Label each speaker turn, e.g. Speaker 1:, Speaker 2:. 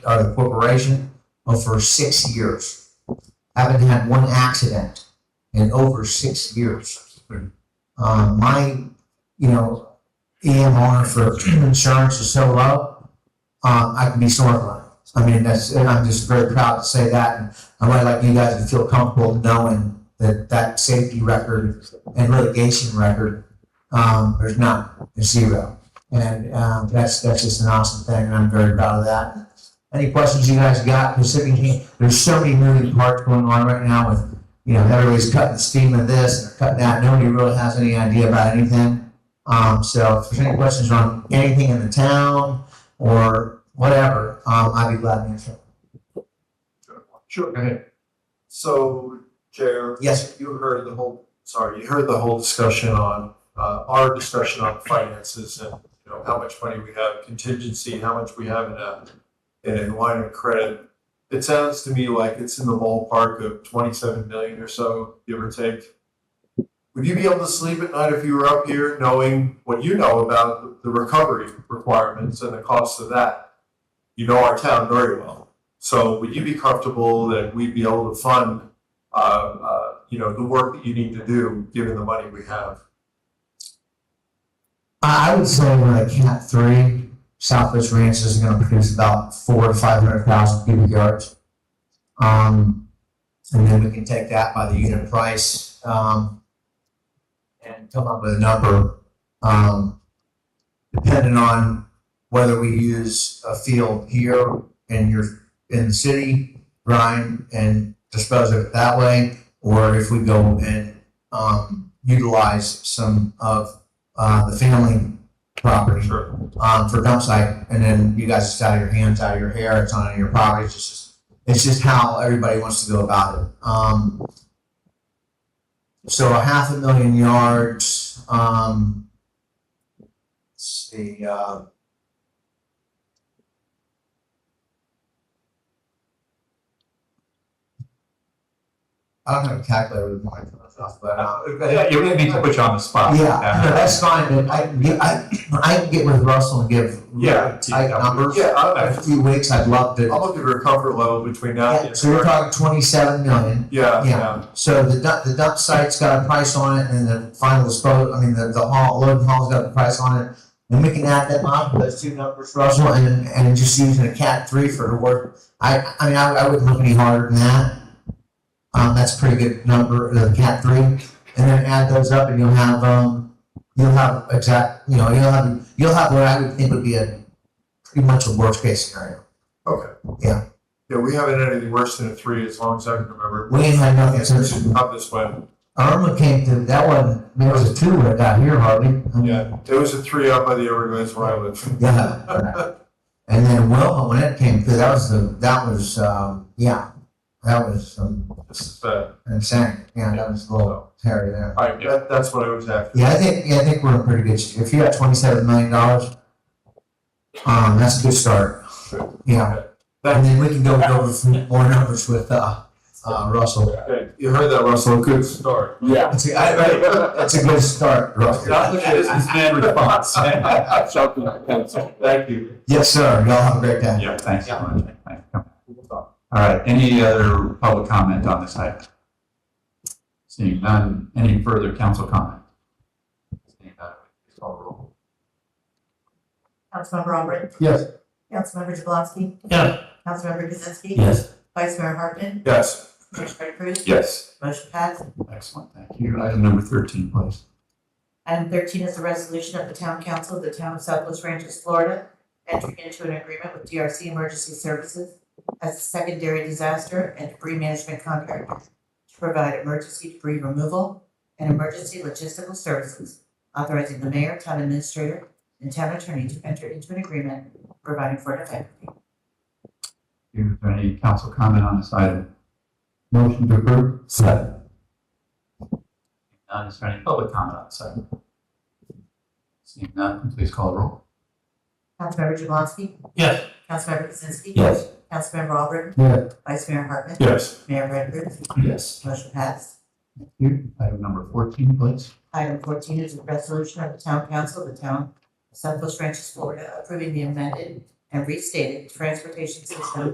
Speaker 1: or the corporation uh, for six years. Haven't had one accident in over six years. Uh, my, you know, EMR for insurance is so low, uh, I can be sore. I mean, that's, and I'm just very proud to say that. And I would like you guys to feel comfortable knowing that that safety record and litigation record, um, there's none, there's zero. And, um, that's, that's just an awesome thing and I'm very proud of that. Any questions you guys got Pacific Heat? There's so many moving parts going on right now with, you know, everybody's cutting the steam of this and cutting that. Nobody really has any idea about anything. Um, so if there's any questions on anything in the town or whatever, um, I'd be glad to answer.
Speaker 2: Sure, go ahead. So, Chair.
Speaker 1: Yes.
Speaker 2: You heard the whole, sorry, you heard the whole discussion on, uh, our discussion on finances and, you know, how much money we have contingency, how much we have in a, in a line of credit. It sounds to me like it's in the ballpark of twenty-seven million or so, give or take. Would you be able to sleep at night if you were up here knowing what you know about the recovery requirements and the cost of that? You know our town very well. So would you be comfortable that we'd be able to fund, uh, uh, you know, the work that you need to do, given the money we have?
Speaker 1: I I would say like Cat Three, Southwest Ranch is going to produce about four to five hundred thousand cubic yards. Um, and then we can take that by the unit price, um, and come up with a number, um, depending on whether we use a field here in your, in the city, grind and dispose of it that way, or if we go and, um, utilize some of uh, the family property
Speaker 2: Sure.
Speaker 1: um, for dump site, and then you guys, it's out of your hands, out of your hair, it's on your property. It's just, it's just how everybody wants to go about it. Um, so a half a million yards. Um, let's see. Uh, I don't have a calculator with mine, but uh,
Speaker 3: Yeah, you're gonna need to put you on the spot.
Speaker 1: yeah,
Speaker 2: uh,
Speaker 1: no, that's fine, but I, can get- I, I can get with Russell and give
Speaker 3: Yeah.
Speaker 1: tight numbers.
Speaker 2: Yeah,
Speaker 1: A
Speaker 2: I-
Speaker 1: few weeks, I'd love
Speaker 2: I-
Speaker 1: to.
Speaker 2: I'm looking for a comfort level between that
Speaker 1: Yeah,
Speaker 2: and.
Speaker 1: So we're talking twenty-seven million,
Speaker 2: Yeah,
Speaker 1: yeah.
Speaker 2: yeah,
Speaker 1: so the dump, the dump site's got a price on it, and the final disposal, I mean, the, the haul, load and haul's got a price on it. And we can add them up, those two numbers, Russell, and, and just using a cat three for the work, I, I mean, I, I wouldn't look any harder than that. Um, that's a pretty good number, the cat three, and then add those up and you'll have, um, you'll have exact, you know, you'll have, you'll have what I would think would be a, pretty much a worst case scenario.
Speaker 2: okay.
Speaker 1: Yeah.
Speaker 2: Yeah, we haven't had anything worse than a three, as long as I can remember.
Speaker 1: We ain't had nothing since
Speaker 2: Up this way,
Speaker 1: Irma came through, that wasn't, there was a two when it got here hardly.
Speaker 2: yeah, it was a three out by the Everglades where I live.
Speaker 1: Yeah. And then Wilma, when it came through, that was the, that was, um, yeah, that was um,
Speaker 2: This is bad,
Speaker 1: insane, yeah, that was a little hairy there.
Speaker 2: all right, that, that's what I was after.
Speaker 1: Yeah, I think, yeah, I think we're in pretty good, shape. if you got twenty-seven million dollars, um, that's a good start.
Speaker 2: Sure.
Speaker 1: Yeah, and then we can go over some more numbers with, uh, uh, Russell.
Speaker 2: Okay, you heard that, Russell, good start.
Speaker 3: Yeah.
Speaker 1: It's a, I, I, it's a good start, Russell.
Speaker 2: Not the business
Speaker 3: man response.
Speaker 2: Sharpen that pencil. Thank you.
Speaker 1: Yes, sir, y'all have a great day.
Speaker 3: Yeah, thanks so much. Thank you. All right, any other public comment on this item? Seeing none, any further council comment? Seeing none, please call the roll.
Speaker 4: Councilmember Albrecht.
Speaker 2: Yes.
Speaker 4: Councilmember Jablonski.
Speaker 3: Yeah.
Speaker 4: Councilmember Kaczynski.
Speaker 3: Yes.
Speaker 4: Vice Mayor Hartman.
Speaker 2: Yes.
Speaker 4: Motion carried, approved.
Speaker 3: Yes.
Speaker 4: Motion passed.
Speaker 3: Excellent, thank you. Item number thirteen, please.
Speaker 4: Item thirteen is a resolution of the Town Council of the Town of Southwest Ranches, Florida, entering into an agreement with DRC Emergency Services as a secondary disaster and debris management contractor to provide emergency debris removal and emergency logistical services, authorizing the mayor, town administrator, and town attorney to enter into an agreement providing for an effective date.
Speaker 3: Is there any council comment on this item? Motion to approve. Second. None, is there any public comment on this item? Seeing none, please call the roll.
Speaker 4: Councilmember Jablonski.
Speaker 3: Yes.
Speaker 4: Councilmember Kaczynski.
Speaker 3: Yes.
Speaker 4: Councilmember Albrecht.
Speaker 1: Yeah.
Speaker 4: Vice Mayor Hartman.
Speaker 2: Yes.
Speaker 4: Mayor Redford.
Speaker 3: Yes.
Speaker 4: Motion passed.
Speaker 3: Item number fourteen, please.
Speaker 4: Item fourteen is a resolution of the Town Council of the Town of Southwest Ranches, Florida, approving the amended and restated transportation system